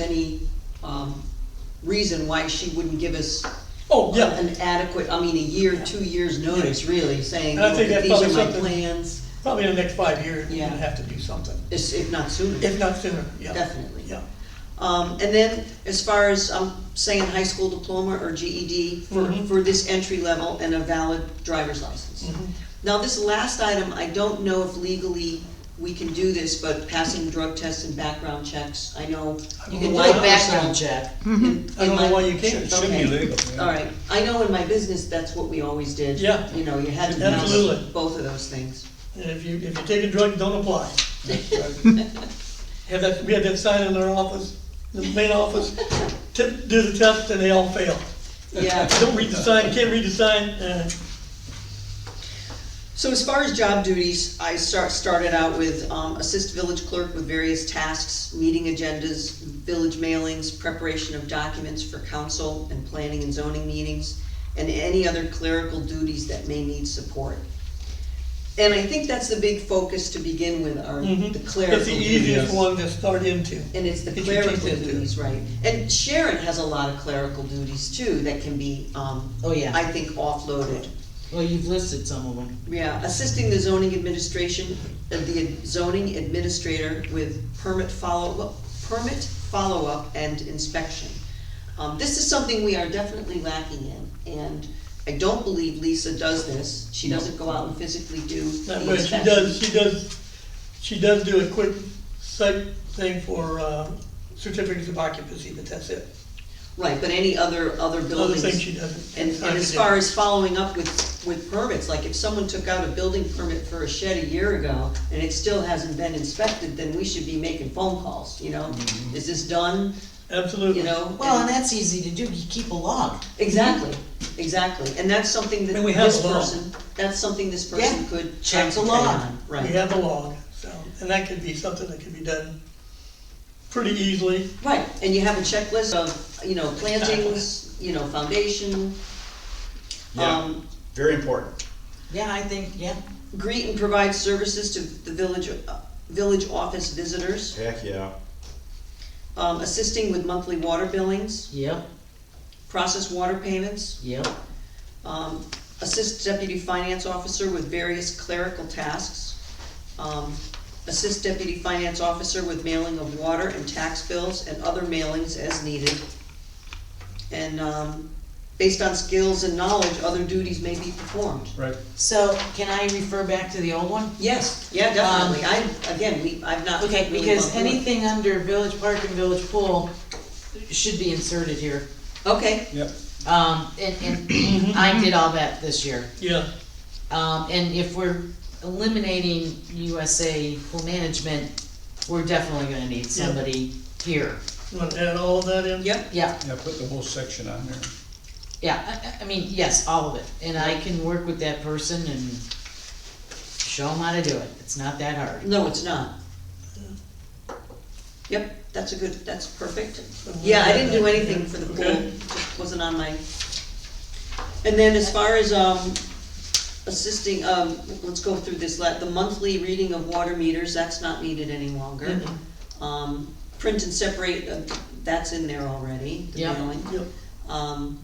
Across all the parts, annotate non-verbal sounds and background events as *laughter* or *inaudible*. any, um, reason why she wouldn't give us Oh, yeah, an adequate, I mean, a year, two years notice, really, saying, And I look, think that's these are probably my something- plans, probably in the next five years, we're Yeah. gonna have to do something, it's- if not sooner. if not sooner, yeah. Definitely. Yeah, Um, and then, as far as, um, saying high school diploma or GED for, Mhm. for this entry level and a valid driver's license. Mhm. Now, this last item, I don't know if legally we can do this, but passing drug tests and background checks, I know you can. Why do it. background check? In- Mm-hmm. I don't in my- know why you can't. Should be Okay. legal. All right, I know in my business, that's what we always did. Yeah. You know, you had to pass Absolutely. both of those things. And if you, if you take a drug, *laughs* don't apply. Have that, we had that sign in our office, the main office, t- do the test and they all fail. Yeah. Don't read the sign, can't read the sign, uh, So as far as job duties, I start, started out with, um, assist village clerk with various tasks, meeting agendas, village mailings, preparation of documents for council and planning and zoning meetings, and any other clerical duties that may need support. And I think that's the big focus to begin with, are mhm. the clerical it's the duties. easiest one to start into. And it's the Get your clerical teeth into it. duties, right. And Sharon has a lot of clerical duties too that can be, um, Oh, I yeah. think offloaded. Well, you've listed some of them. Yeah, assisting the zoning administration, uh, the zoning administrator with permit follow-up, permit follow-up and inspection. Um, this is something we are definitely lacking in, and I don't believe Lisa does this. She doesn't go out and physically do That the way, she inspection. does, she does, she does do a quick site thing for, uh, certificates of occupancy, but that's it. Right, but any other, other Other buildings. things she doesn't. And, and as far as following up with, with permits, like if someone took out a building permit for a shed a year ago and it still hasn't been inspected, then we should be making phone calls, you know? Mm-hmm. Is this done, Absolutely. you know? Well, and that's easy to do, you keep a log. Exactly, exactly, and that's something that And we have this a law. person, that's something this person Yeah, could check the concentrate law. on, right? We have a log, so, and that could be something that could be done pretty easily. Right, and you have a checklist of, you know, plantings, you know, foundation. Yeah, Um, very important. Yeah, I think, yeah. greet and provide services to the village, uh, village office visitors, Heck, yeah. um, assisting with monthly water billings, Yep, process water payments, yep. um, assist deputy finance officer with various clerical tasks, um, assist deputy finance officer with mailing of water and tax bills and other mailings as needed. And, um, based on skills and knowledge, other duties may be performed. Right. So can I refer back to the old one? Yes, yeah, definitely, I, again, we, I've not really Um, Okay, gone because through it. anything under village park and village pool should be inserted here. Okay, Yep. Um, and, and *coughs* I did all that this year. Yeah, Um, and if we're eliminating USA pool management, we're definitely gonna need Yeah. somebody here. you wanna add all of that in? yep. Yeah, Yeah, put the whole section on there. Yeah, I- I, I mean, yes, all of it, and I can work with that person and show them how to do it, it's not that hard. No, it's not. Yep, that's a good, that's perfect. Yeah, I didn't do anything for the pool, Okay. just wasn't on my. And then as far as, um, assisting, um, let's go through this, let, the monthly reading of water meters, that's not needed any longer. Mm-hmm. Um, print and separate, uh, that's in there already, the Yeah. mailing. Yep. Um,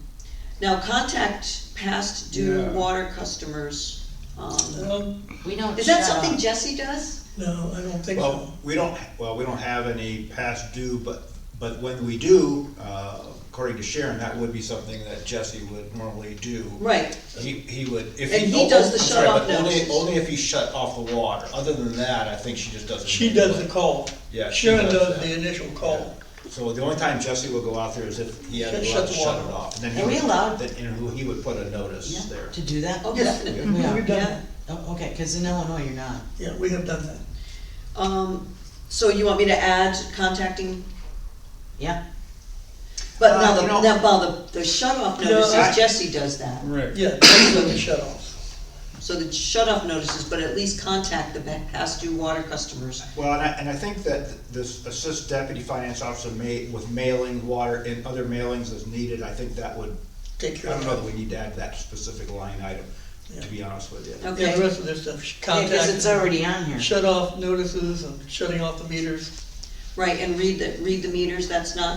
now contact past due Yeah. water customers, um, Um, We don't. is that Uh, shut something up. Jesse does? no, I don't think so. Well, we don't, well, we don't have any past due, but, but when we do, uh, according to Sharon, that would be something that Jesse would normally do. Right, He, he would, if he. And he does the I'm sorry, shut-off but only- notices. Only if he shut off the water. Other than that, I think she just doesn't. She does the call. Yeah, she Sharon does does that. the initial call. So the only time Jesse would go out there is if he had to Shut- go shut out to the shut it water off. And then Are he we would- allowed? Then, and he would put a notice Yeah. there. To do that? oh, Yeah. definitely. We are. We've done that. Oh, okay, cause in Illinois you're not, Yeah, we have done that. Um, so you want me to add contacting, yeah, but now Uh, the, you know- now, well, the, the shut off No, notices, I- Jesse does that. Right. Yeah, that's when the shut-offs. So the shut off notices, but at least contact the ba- past due water customers. Well, and I, and I think that this assist deputy finance officer may, with mailing, water, and other mailings as needed, I think that would, Take I care of don't it. know that we need to add that specific line item, Yeah. to be honest with you. Yeah, the Okay, rest of this stuff, yeah, contact. cause it's already on here. Shut-off notices and shutting off the meters. Right, and read the, read the meters, that's not